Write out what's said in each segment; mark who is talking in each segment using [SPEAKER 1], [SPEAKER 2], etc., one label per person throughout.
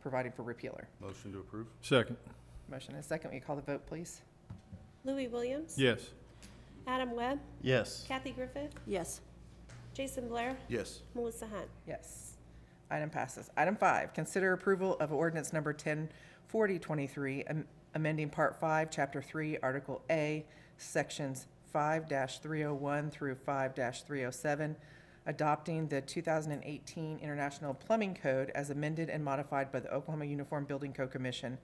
[SPEAKER 1] providing for repealer.
[SPEAKER 2] Motion to approve?
[SPEAKER 3] Second.
[SPEAKER 1] Motion and a second. Will you call the vote, please?
[SPEAKER 4] Louis Williams?
[SPEAKER 3] Yes.
[SPEAKER 4] Adam Webb?
[SPEAKER 5] Yes.
[SPEAKER 4] Kathy Griffith?
[SPEAKER 6] yes,
[SPEAKER 4] Jason Blair?
[SPEAKER 2] Yes.
[SPEAKER 4] Melissa Hunt?
[SPEAKER 1] Yes. Item passes. Item five, consider approval of ordinance number 104023, am- amending Part 5, Chapter 3, Article A, Sections 5-301 through 5-307, adopting the 2018 International Plumbing Code as amended and modified by the Oklahoma Uniform Building Code Commission,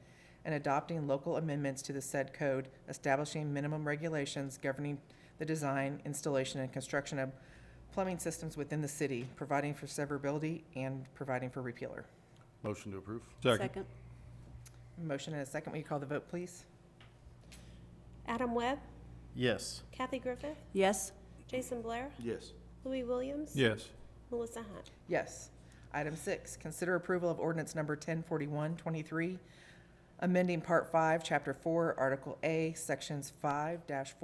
[SPEAKER 1] and adopting local amendments to the said code, establishing minimum regulations governing the design, installation, and construction of plumbing systems within the city, providing for severability and providing for repealer.
[SPEAKER 2] Motion to approve?
[SPEAKER 3] Second.
[SPEAKER 6] second,
[SPEAKER 1] Motion and a second. Will you call the vote, please?
[SPEAKER 4] Adam Webb?
[SPEAKER 5] Yes.
[SPEAKER 4] Kathy Griffith?
[SPEAKER 6] yes,
[SPEAKER 4] Jason Blair?
[SPEAKER 2] Yes.
[SPEAKER 4] Louis Williams?
[SPEAKER 3] Yes.
[SPEAKER 4] Melissa Hunt?
[SPEAKER 1] Yes. Item six, consider approval of ordinance number 104123, amending Part 5, Chapter 4, Article A, Sections 5-401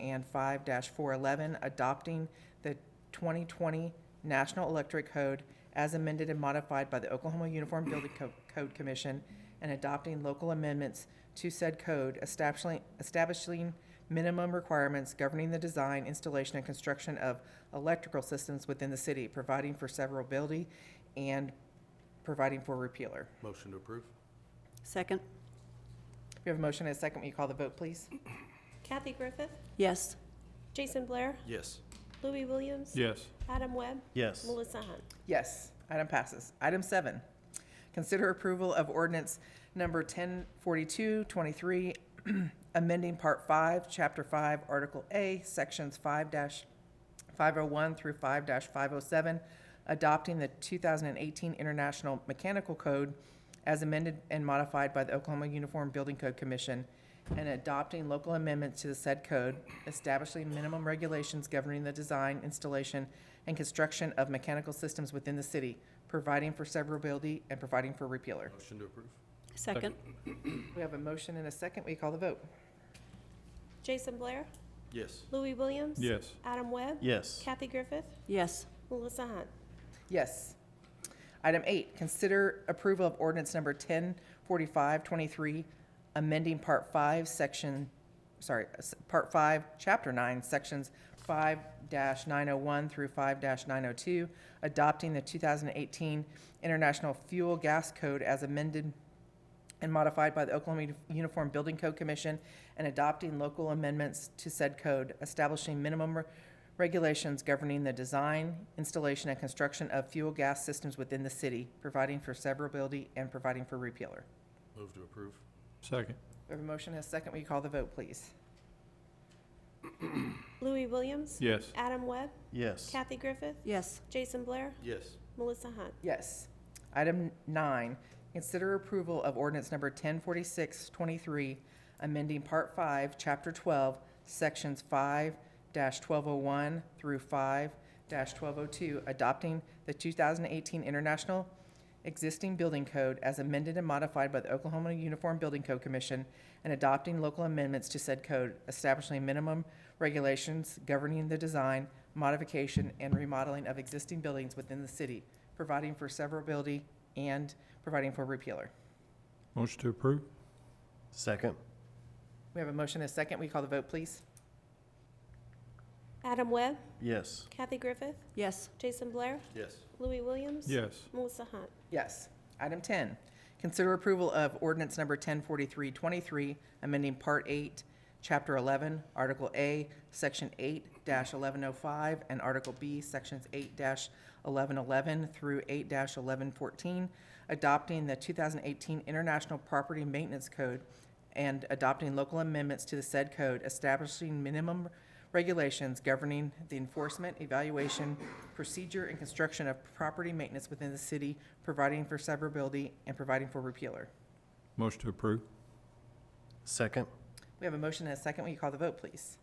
[SPEAKER 1] and 5-411, adopting the 2020 National Electric Code as amended and modified by the Oklahoma Uniform Building Co- Code Commission, and adopting local amendments to said code, establishing, establishing minimum requirements governing the design, installation, and construction of electrical systems within the city, providing for severability and providing for repealer.
[SPEAKER 2] Motion to approve?
[SPEAKER 6] second,
[SPEAKER 1] We have a motion and a second. Will you call the vote, please?
[SPEAKER 4] Kathy Griffith?
[SPEAKER 6] yes,
[SPEAKER 4] Jason Blair?
[SPEAKER 2] Yes.
[SPEAKER 4] Louis Williams?
[SPEAKER 3] Yes.
[SPEAKER 4] Adam Webb?
[SPEAKER 5] Yes.
[SPEAKER 4] Melissa Hunt?
[SPEAKER 1] Yes, item passes. Item seven, consider approval of ordinance number 104223, amending Part 5, Chapter 5, Article A, Sections 5-501 through 5-507, adopting the 2018 International Mechanical Code as amended and modified by the Oklahoma Uniform Building Code Commission, and adopting local amendments to the said code, establishing minimum regulations governing the design, installation, and construction of mechanical systems within the city, providing for severability and providing for repealer.
[SPEAKER 2] Motion to approve?
[SPEAKER 6] second,
[SPEAKER 1] We have a motion and a second. We call the vote?
[SPEAKER 4] Jason Blair?
[SPEAKER 2] Yes.
[SPEAKER 4] Louis Williams?
[SPEAKER 3] Yes.
[SPEAKER 4] Adam Webb?
[SPEAKER 5] Yes.
[SPEAKER 4] Kathy Griffith?
[SPEAKER 6] yes,
[SPEAKER 4] Melissa Hunt?
[SPEAKER 1] Yes. Item eight, consider approval of ordinance number 104523, amending Part 5, Section, sorry, s- Part 5, Chapter 9, Sections 5-901 through 5-902, adopting the 2018 International Fuel Gas Code as amended and modified by the Oklahoma Uni- Uniform Building Code Commission and adopting local amendments to said code, establishing minimum re- regulations governing the design, installation, and construction of fuel gas systems within the city, providing for severability and providing for repealer.
[SPEAKER 2] Move to approve?
[SPEAKER 3] Second.
[SPEAKER 1] We have a motion and a second. Will you call the vote, please?
[SPEAKER 4] Louis Williams?
[SPEAKER 3] Yes.
[SPEAKER 4] Adam Webb?
[SPEAKER 5] Yes.
[SPEAKER 4] Kathy Griffith?
[SPEAKER 6] yes,
[SPEAKER 4] Jason Blair?
[SPEAKER 2] Yes.
[SPEAKER 4] Melissa Hunt?
[SPEAKER 1] Yes. Item nine, consider approval of ordinance number 104623, amending Part 5, Chapter 12, Sections 5-1201 through 5-1202, adopting the 2018 International Existing Building Code as amended and modified by the Oklahoma Uniform Building Code Commission, and adopting local amendments to said code, establishing minimum regulations governing the design, modification, and remodeling of existing buildings within the city, providing for severability and providing for repealer.
[SPEAKER 3] Motion to approve?
[SPEAKER 5] Second.
[SPEAKER 1] We have a motion and a second. We call the vote, please?
[SPEAKER 4] Adam Webb?
[SPEAKER 5] Yes.
[SPEAKER 4] Kathy Griffith?
[SPEAKER 6] yes,
[SPEAKER 4] Jason Blair?
[SPEAKER 2] Yes.
[SPEAKER 4] Louis Williams?
[SPEAKER 3] Yes.
[SPEAKER 4] Melissa Hunt?
[SPEAKER 1] Yes. Item 10, consider approval of ordinance number 104323, amending Part 8, Chapter 11, Article A, Section 8-1105, and Article B, Sections 8-1111 through 8-1114, adopting the 2018 International Property Maintenance Code and adopting local amendments to the said code establishing minimum regulations governing the enforcement, evaluation, procedure, and construction of property maintenance within the city, providing for severability and providing for repealer.
[SPEAKER 3] Motion to approve?
[SPEAKER 5] Second.
[SPEAKER 1] We have a motion and a second. Will you call the vote, please?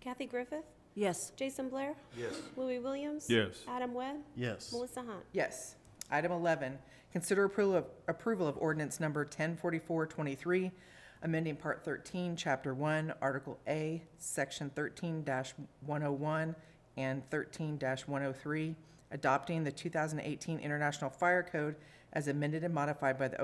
[SPEAKER 4] Kathy Griffith?
[SPEAKER 6] yes,
[SPEAKER 4] Jason Blair?
[SPEAKER 2] Yes.
[SPEAKER 4] Louis Williams?
[SPEAKER 3] Yes.
[SPEAKER 4] Adam Webb?
[SPEAKER 5] Yes.
[SPEAKER 4] Melissa Hunt?
[SPEAKER 1] Yes. Item 11, consider approval of, approval of ordinance number 104423, amending Part 13, Chapter 1, Article oh A, Section 13-101 and 13-103, adopting the 2018 International Fire Code as amended and modified by the